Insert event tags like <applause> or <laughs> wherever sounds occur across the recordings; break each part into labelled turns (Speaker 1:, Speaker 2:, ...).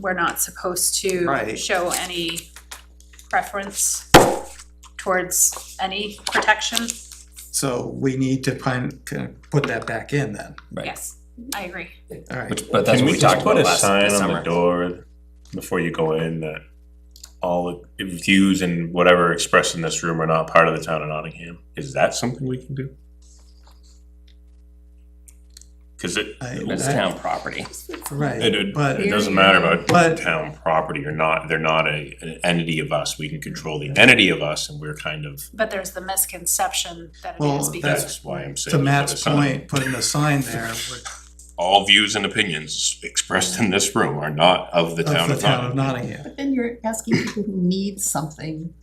Speaker 1: we're not supposed to
Speaker 2: Right.
Speaker 1: show any preference towards any protection.
Speaker 2: So we need to pun- c- put that back in then,
Speaker 3: Right.
Speaker 1: Yes, I agree.
Speaker 2: all right.
Speaker 3: Which, but that's
Speaker 4: Can
Speaker 3: what we
Speaker 4: we just
Speaker 3: talked
Speaker 4: put
Speaker 3: about
Speaker 4: a
Speaker 3: last
Speaker 4: sign on the
Speaker 3: summer.
Speaker 4: door before you go in that all views and whatever expressed in this room are not part of the town of Nottingham? Is that something we can do? Cause it,
Speaker 2: I-
Speaker 3: It's
Speaker 2: I-
Speaker 3: town property.
Speaker 4: it,
Speaker 2: Right,
Speaker 4: it-
Speaker 2: but,
Speaker 4: it doesn't matter
Speaker 2: But-
Speaker 4: about town property or not, they're not a, an entity of us, we can control the entity of us and we're kind of,
Speaker 1: But there's the misconception that it
Speaker 2: Well,
Speaker 1: is because,
Speaker 4: that's why I'm saying.
Speaker 2: to
Speaker 4: we put a
Speaker 2: Matt's
Speaker 4: sign.
Speaker 2: point, putting a sign there
Speaker 4: <laughs>
Speaker 2: would-
Speaker 4: All views and opinions expressed in this room are not of the
Speaker 2: of
Speaker 4: town
Speaker 2: the
Speaker 4: of
Speaker 2: town of
Speaker 4: Nottingham.
Speaker 2: Nottingham.
Speaker 5: But then you're asking people who need something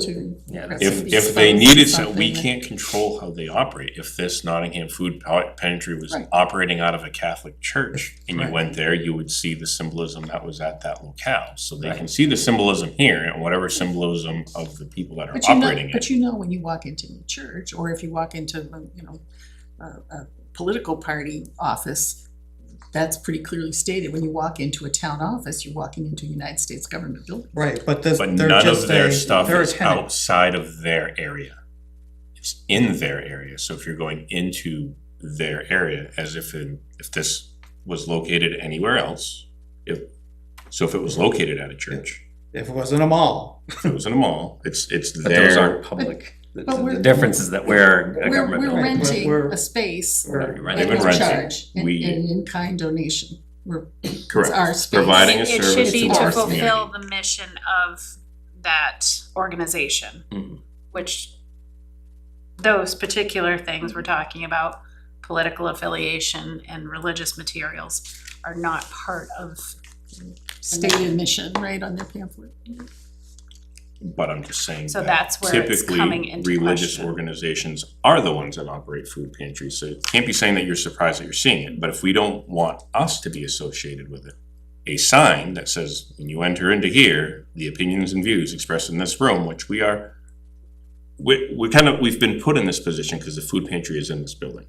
Speaker 5: to.
Speaker 3: Yeah, that's-
Speaker 4: If,
Speaker 5: Somebody
Speaker 4: if they
Speaker 5: spoke
Speaker 4: needed some,
Speaker 5: something
Speaker 4: we
Speaker 5: that-
Speaker 4: can't control how they operate. If this Nottingham Food Pal- Pantry was
Speaker 5: Right.
Speaker 4: operating out of a Catholic church and you
Speaker 2: Right.
Speaker 4: went there, you would see the symbolism that was at that locale. So they can
Speaker 3: Right.
Speaker 4: see the symbolism here and whatever symbolism of the people that are
Speaker 5: But you know,
Speaker 4: operating it.
Speaker 5: but you know when you walk into a church, or if you walk into, you know, a, a political party office, that's pretty clearly stated. When you walk into a town office, you're walking into a United States government building.
Speaker 2: Right, but this,
Speaker 4: But
Speaker 2: they're
Speaker 4: none of
Speaker 2: just
Speaker 4: their
Speaker 2: a,
Speaker 4: stuff
Speaker 2: they're a
Speaker 4: is
Speaker 2: tenant.
Speaker 4: outside of their area. It's in their area, so if you're going into their area, as if in, if this was located anywhere else, if, so if it was located at a church,
Speaker 2: If it wasn't a mall,
Speaker 4: if it was in a mall, it's, it's
Speaker 3: But those
Speaker 4: their,
Speaker 3: aren't public. The
Speaker 5: But
Speaker 3: the
Speaker 5: we're-
Speaker 3: difference is that we're a
Speaker 5: We're,
Speaker 3: government
Speaker 5: we're
Speaker 3: building.
Speaker 5: renting
Speaker 2: We're-
Speaker 5: a space
Speaker 3: We're
Speaker 2: we're-
Speaker 5: at
Speaker 4: They've
Speaker 3: renting.
Speaker 4: been
Speaker 5: a
Speaker 4: renting.
Speaker 5: charge and,
Speaker 4: We-
Speaker 5: and in-kind donation. We're, it's
Speaker 4: correct,
Speaker 5: our space.
Speaker 4: providing a
Speaker 1: it should
Speaker 4: service
Speaker 1: be
Speaker 4: to
Speaker 1: to
Speaker 4: our community.
Speaker 1: fulfill the mission of that organization.
Speaker 4: Mm-hmm.
Speaker 3: Mhm.
Speaker 1: which those particular things we're talking about, political affiliation and religious materials are not part of.
Speaker 5: Stated mission, right, on their pamphlet.
Speaker 4: But I'm just saying
Speaker 1: So
Speaker 4: that
Speaker 1: that's where it's coming into
Speaker 4: typically, religious
Speaker 1: question.
Speaker 4: organizations are the ones that operate food pantries, so you can't be saying that you're surprised that you're seeing it, but if we don't want us to be associated with it, a sign that says, when you enter into here, the opinions and views expressed in this room, which we are, we, we kind of, we've been put in this position because the food pantry is in this building.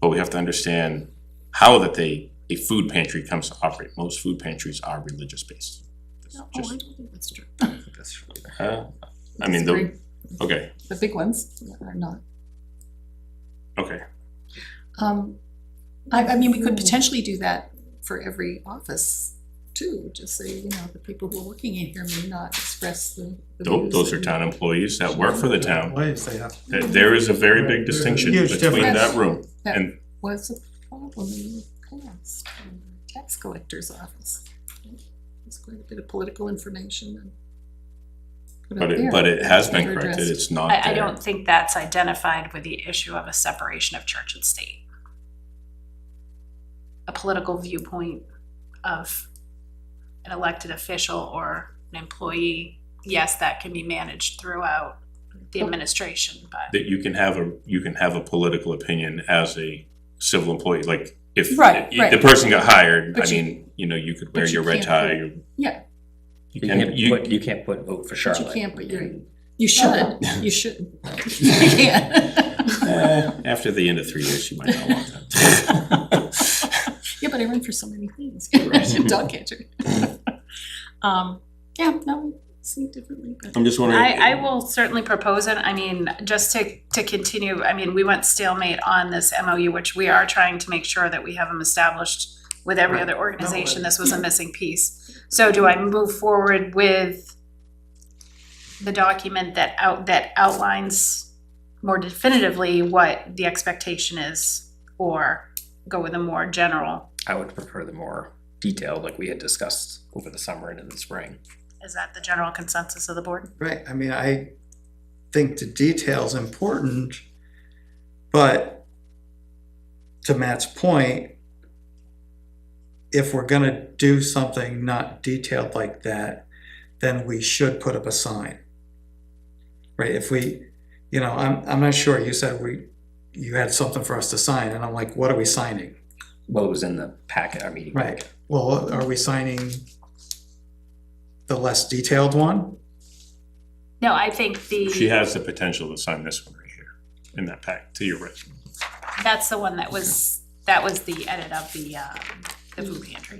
Speaker 4: But we have to understand how that they, a food pantry comes to operate. Most food pantries are religious based.
Speaker 5: No, oh, I
Speaker 4: Just,
Speaker 5: don't think that's true.
Speaker 4: uh, I mean, the,
Speaker 5: Disagree.
Speaker 4: okay,
Speaker 5: The big ones are not.
Speaker 4: Okay,
Speaker 5: Um, I, I mean, we could potentially do that for every office too, just say, you know, the people who are working in here may not express the. the
Speaker 4: those,
Speaker 5: views
Speaker 4: those are
Speaker 5: and-
Speaker 4: town employees that work for the town.
Speaker 2: ways they have,
Speaker 4: There- There is a very big distinction
Speaker 2: Huge
Speaker 4: between
Speaker 5: difference.
Speaker 4: that room
Speaker 5: That
Speaker 4: and,
Speaker 5: was a problem in the past, in the tax collector's office. There's quite a bit of political information and. put
Speaker 4: but
Speaker 5: out
Speaker 4: it,
Speaker 5: there.
Speaker 4: but it has been
Speaker 5: Never
Speaker 4: corrected,
Speaker 5: addressed.
Speaker 4: it's not there.
Speaker 1: I, I don't think that's identified with the issue of a separation of church and state. A political viewpoint of an elected official or an employee, yes, that can be managed throughout the administration, but.
Speaker 4: That you can have a, you can have a political opinion as a civil employee, like if
Speaker 5: Right,
Speaker 4: if
Speaker 5: right.
Speaker 4: the person got hired, I
Speaker 5: But you-
Speaker 4: mean, you know, you could wear
Speaker 5: but you
Speaker 4: your red
Speaker 5: can't
Speaker 4: tie.
Speaker 5: put-
Speaker 4: you-
Speaker 5: Yeah,
Speaker 3: You
Speaker 4: You can,
Speaker 3: can't
Speaker 4: you,
Speaker 3: put, you can't put vote for
Speaker 5: but
Speaker 3: Charlotte.
Speaker 5: you can't, but you,
Speaker 3: in-
Speaker 5: you should, <laughs> you shouldn't.
Speaker 4: <laughs>
Speaker 5: You can't.
Speaker 4: eh, after the end of three years, you might not want that.
Speaker 5: <laughs> Yeah, but I run for so many things,
Speaker 4: Right.
Speaker 5: <laughs> dog catcher. Um, yeah, no, see differently,
Speaker 4: <laughs>
Speaker 5: but.
Speaker 4: I'm just wondering.
Speaker 1: I, I will certainly propose it. I mean, just to, to continue, I mean, we went stalemate on this MOU, which we are trying to make sure that we have them established with every other organization. This was a missing piece. So do I move forward with the document that out, that outlines more definitively what the expectation is? Or go with a more general?
Speaker 3: I would prefer the more detailed, like we had discussed over the summer and in the spring.
Speaker 1: Is that the general consensus of the board?
Speaker 2: right, I mean, I think the detail's important, but to Matt's point, if we're gonna do something not detailed like that, then we should put up a sign. Right, if we, you know, I'm, I'm not sure, you said we, you had something for us to sign, and I'm like, what are we signing?
Speaker 3: What was in the packet, our meeting
Speaker 2: Right,
Speaker 3: packet.
Speaker 2: well, are we signing the less detailed one?
Speaker 1: No, I think the.
Speaker 4: She has the potential to sign this one right here in that pack to your right.
Speaker 1: That's uh, the one that was, that was the edit of the, um, the food pantry.